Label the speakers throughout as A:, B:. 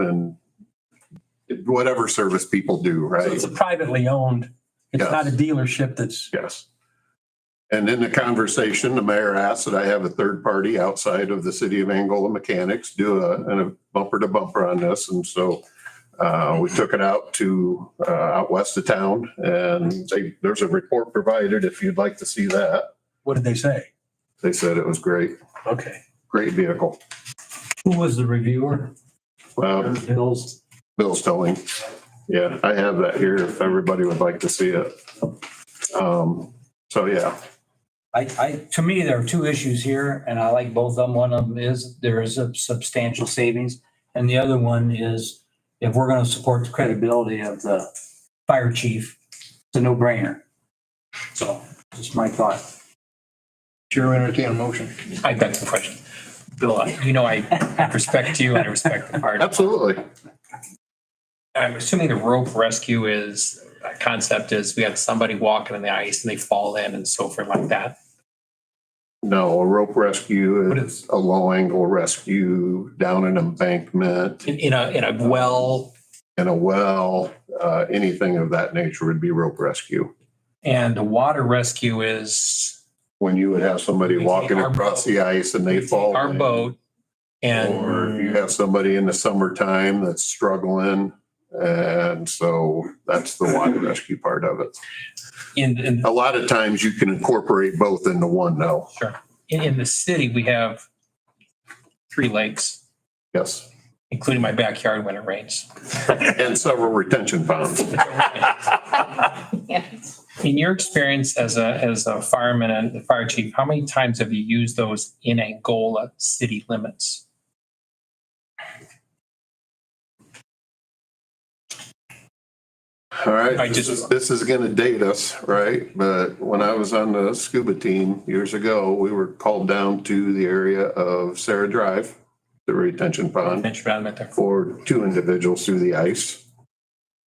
A: and whatever service people do,
B: So
A: right?
B: it's a privately owned, it's
A: Yes.
B: not a dealership that's,
A: Yes. And in the conversation, the mayor asked that I have a third party outside of the city of Angola Mechanics do a, and a bumper to bumper on this. And so uh, we took it out to, uh, out west of town and they, there's a report provided if you'd like to see that.
B: what did they say?
A: They said it was great,
B: Okay.
A: great vehicle.
C: Who was the reviewer?
A: Um,
C: Hills.
A: Bill's telling. Yeah, I have that here if everybody would like to see it. Um, so yeah,
C: I, I, to me, there are two issues here and I like both of them. One of them is there is a substantial savings. And the other one is if we're going to support the credibility of the fire chief, it's a no brainer. So just my thought.
D: Chair entertain a motion.
E: I got some questions. Bill, you know, I respect you and I respect the fire.
A: absolutely.
E: I'm assuming the rope rescue is, uh, concept is we have somebody walking on the ice and they fall in and so forth like that.
A: No, a rope rescue
E: What
A: is a low angle rescue down an embankment
E: In, in a, in a well
A: in a well, uh, anything of that nature would be rope rescue.
E: and the water rescue is
A: When you would have somebody
E: We take
A: walking
E: our
A: across
E: boat.
A: the ice and they fall.
E: our
A: in.
E: boat
A: Or if you
E: and
A: have somebody in the summertime that's struggling. And so that's the water rescue part of it.
E: in, in,
A: A lot of times you can incorporate both into one though.
E: in in the city, we have three lakes,
A: Yes.
E: including my backyard when it rains.
A: And several retention ponds.
E: In your experience as a, as a fireman and the fire chief, how many times have you used those in Angola city limits?
A: All right,
E: I
A: this
E: just-
A: is, this is gonna date us, right? But when I was on the scuba team years ago, we were called down to the area of Sarah Drive, the retention pond,
E: Mention about that.
A: for two individuals through the ice.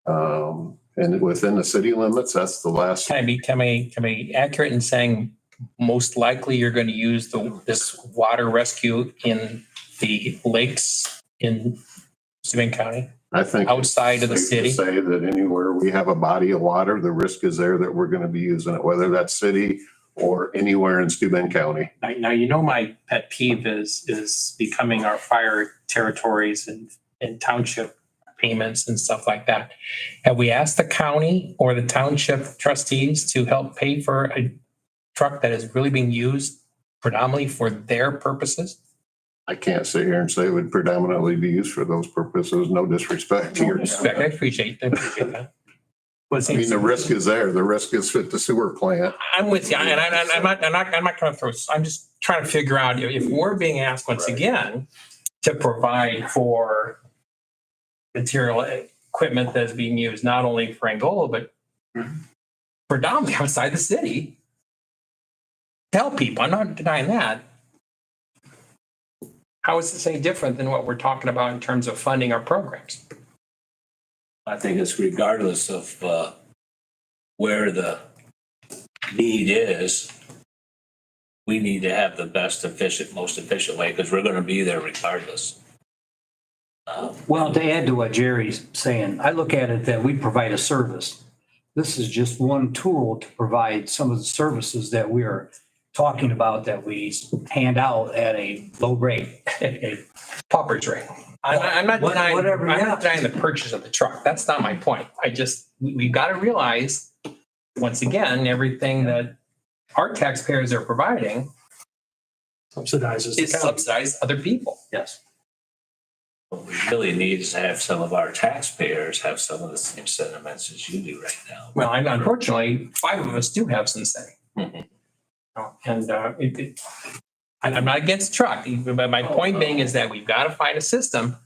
A: Um, and within the city limits, that's the last,
E: Can I be, can I, can I be accurate in saying most likely you're going to use the, this water rescue in the lakes in Sabine County?
A: I think.
E: Outside of the
A: it's safe to
E: city?
A: Say that anywhere we have a body of water, the risk is there that we're gonna be using it, whether that's city or anywhere in Steuben County.
F: Now, now you know my pet peeve is is becoming our fire territories and
E: and township payments and stuff like that. Have we asked the county or the township trustees to help pay for a truck that is really being used predominantly for their purposes?
A: I can't sit here and say it would predominantly be used for those purposes, no disrespect to your.
E: Respect, I appreciate, I appreciate that.
F: was
A: I mean, the risk is there, the risk is at the sewer plant.
E: I'm with you, and I, and I'm not, I'm not, I'm not trying to throw, I'm just trying to figure out if if we're being asked once
A: Right.
E: again to provide for material, equipment that's being used not only for Angola, but predominantly outside the city. Tell people, I'm not denying that. How is this any different than what we're talking about in terms of funding our programs?
G: I think it's regardless of uh, where the need is, we need to have the best efficient, most efficient way because we're going to be there regardless. Um,
C: Well, to add to what Jerry's saying, I look at it that we provide a service. This is just one tool to provide some of the services that we are talking about that we hand out at a low rate.
E: Pauper's rate. I'm, I'm not
C: What-
E: denying,
C: whatever,
E: I'm
C: yeah.
E: not denying the purchase of the truck. That's not my point. I just, we- we've got to realize, once again, everything that our taxpayers are providing
B: Subsidizes.
E: is subsidized other people.
C: Yes.
G: What we really need is to have some of our taxpayers have some of the same sentiments as you do right now.
E: Well, and unfortunately, five of us do have some say.
C: Mm-hmm.
G: Mhm.
E: Oh, And uh, it, it, I- I'm not against truck, but my point being is that we've got to find a system,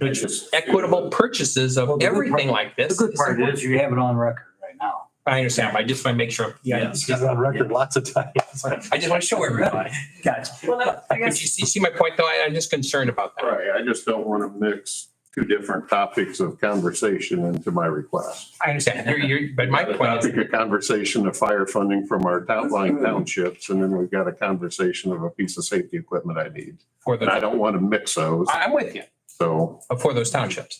A: It's just-
E: equitable purchases
C: Well,
E: of
C: the good part-
E: everything like
C: The
E: this.
C: good part is you have it on record right now.
E: I understand, but I just want to make sure,
B: Yeah, it's got it on record lots of times.
E: I just want to show everybody.
C: Gotcha.
H: Well, I
E: But
H: guess
E: you see, you see my point, though? I, I'm just concerned about that.
A: Right, I just don't want to mix two different topics of conversation into my request.
E: I understand. You're, you're, but my
A: The
E: point is,
A: Topic of conversation of fire funding from our outlying townships, and then we've got a conversation of a piece of safety equipment I need.
E: for
A: And I
E: the,
A: don't want to mix those,
E: I'm with you,
A: so
E: for those townships.